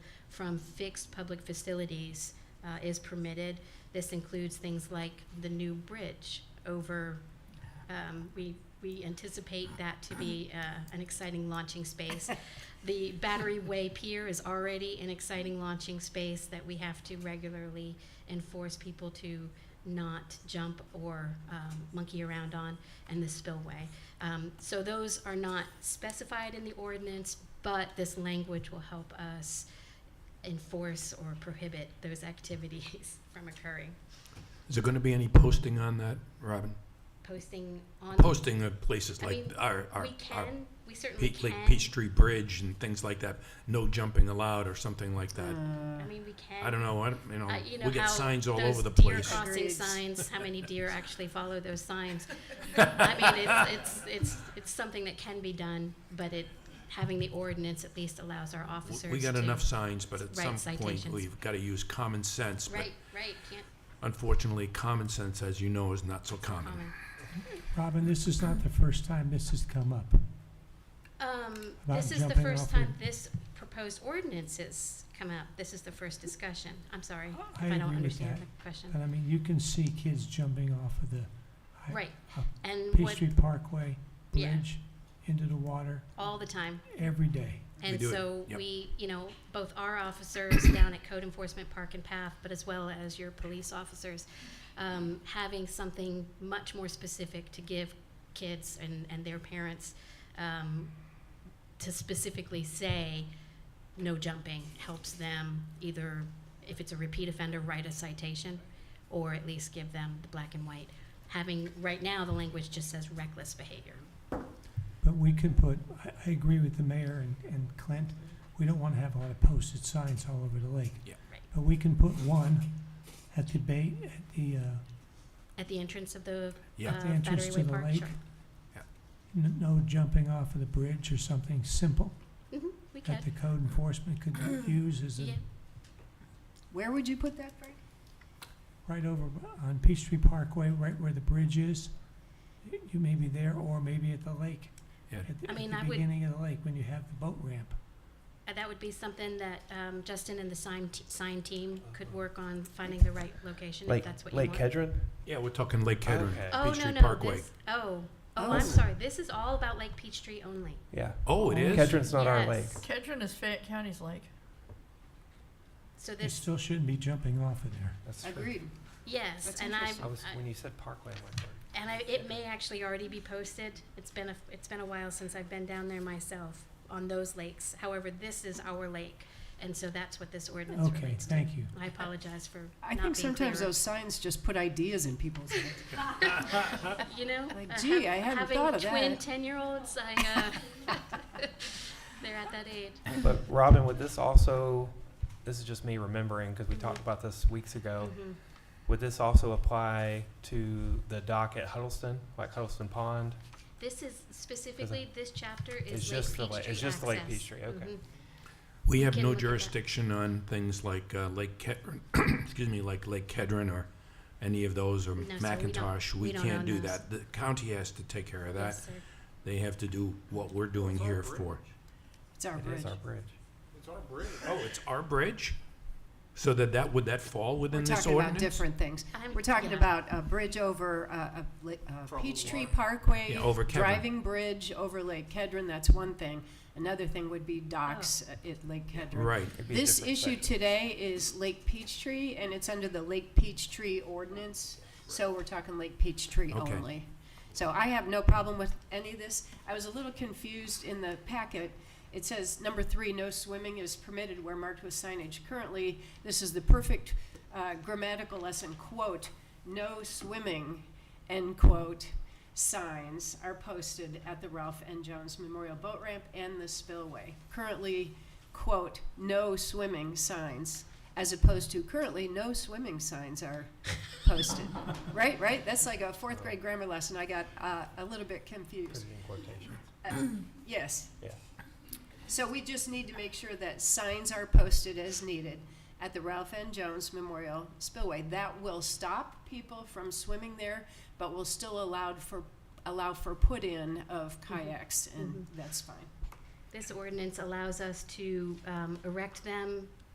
from fixed public facilities uh, is permitted. This includes things like the new bridge over, um, we, we anticipate that to be uh, an exciting launching space. The Battery Way Pier is already an exciting launching space that we have to regularly enforce people to not jump or um, monkey around on, and the spillway. Um, So those are not specified in the ordinance, but this language will help us enforce or prohibit those activities from occurring. Is there going to be any posting on that, Robin? Posting on. Posting of places I like mean, our, our, We our can, we certainly Pe- like can. Peachtree Bridge and things like that, no jumping allowed or something like that. Mm. I mean, we can. I don't know, I, don't- you know, Uh, you know we got how signs all over those the deer place. crossing Agreed. signs. How many deer actually follow those signs? I mean, it's, it's it's it's something that can be done, but it having the ordinance at least allows our W- officers. We got to- enough signs, but at write some point, citations. we've got to use common sense. But Right, right. Can't unfortunately, common sense, as you know, is not so common. comment. Robin, this is not the first time this has come up. Um, About this is the jumping first off time the- this proposed ordinance has come up. This is the first discussion. I'm sorry Oh, I if I don't agree with understand that. the question. But I mean, you can see kids jumping off of the hi- Right. uh, And what, Peachtree Parkway Yeah. Bridge into the water all the time. every day. And do it. so Yep. we, you know, both our officers down at Code Enforcement Park and Path, but as well as your police officers, um, having something much more specific to give kids and, and their parents um, to specifically say no jumping helps them either, if it's a repeat offender, write a citation or at least give them the black and white. Having, right now, the language just says reckless behavior. But we can put, I, I agree with the mayor and, and Clint, we don't wanna have a lot of posted signs all over the lake. Yeah. Right. But we can put one at the bay, at the, uh, At the entrance of the Yeah. uh, the entrance Battery to Way the Park, lake. sure. Yeah. N- No jumping off of the bridge or something simple hmm we can. that the code enforcement could use as a Yeah, Where would you put that, Frank? right over on Peachtree Parkway, right where the bridge is. You may be there or maybe at the lake. Yeah. At the, I at mean, the I would- beginning of the lake when you have the boat ramp. uh, that would be something that um, Justin and the sign, t- sign team could work on finding the right location if Lake, that's what you Lake want. Kedron? Yeah, we're talking Lake Kedron, Okay. Oh, no, Peachtree no, Parkway. this, oh, oh, Oh. I'm sorry, this is all about Lake Peachtree only. Yeah. Oh, it is? Kedron's not our lake. Yes. Kedron is Fayette County's lake. So You this, still shouldn't be jumping off of there. That's true. Agreed. yes, That's and I, interesting. I was, I- when you said Parkway, I went there. and I, it may actually already be posted. It's been a, it's been a while since I've been down there myself on those lakes. However, this is our lake, and so that's what this ordinance Okay, relates to. thank you. I apologize for I not think being sometimes clearer. those signs just put ideas in people's heads. you know, Like, uh, gee, hav- I hadn't having thought of Twin that. ten-year-olds, I, uh, they're at that age. But Robin, would this also, this is just me remembering, because we talked about this weeks ago. Mhm. Would this also apply to the dock at Huddleston, like Huddleston Pond? This is specifically this chapter It's is just the Lake la- it's Peachtree just the Lake access. Peachtree, okay. Mhm. We have Can no look at that. jurisdiction on things like uh, Lake Kedron, excuse me, like Lake Kedron or any of those or No, sir, we don't- Macintosh. we We don't own can't do those. that. The county has to take care of that. Yes, sir. They have to do what we're doing here for. It's our It bridge. is our bridge. Oh, it's our bridge? So that that, would that fall We're within this talking about ordinance? different things. I'm- We're talking yeah. about a bridge over, uh, a, li- uh, Peachtree Parkway. Yeah, over Kedron. Driving bridge over Lake Kedron, that's one thing. Another thing would be docks Oh. uh, at Lake Kedron. Right. It'd be a This different issue section. today is Lake Peachtree, and it's under the Lake Peachtree ordinance, so we're talking Lake Peachtree Okay. only. So I have no problem with any of this. I was a little confused in the packet. It says, number three, no swimming is permitted where marked with signage. Currently, this is the perfect uh, grammatical lesson, quote, "No swimming," end quote, signs are posted at the Ralph N. Jones Memorial Boat Ramp and the spillway. Currently, quote, "No swimming" signs, as opposed to currently, "No swimming" signs are posted. Right, right? That's like a fourth grade grammar lesson. I got uh, a little bit Put confused. it in quotations. Yes. Yeah. So we just need to make sure that signs are posted as needed at the Ralph N. Jones Memorial Spillway. That will stop people from swimming there, but will still allowed for, allow for put-in of kayaks, and that's fine. This ordinance allows us to um, erect them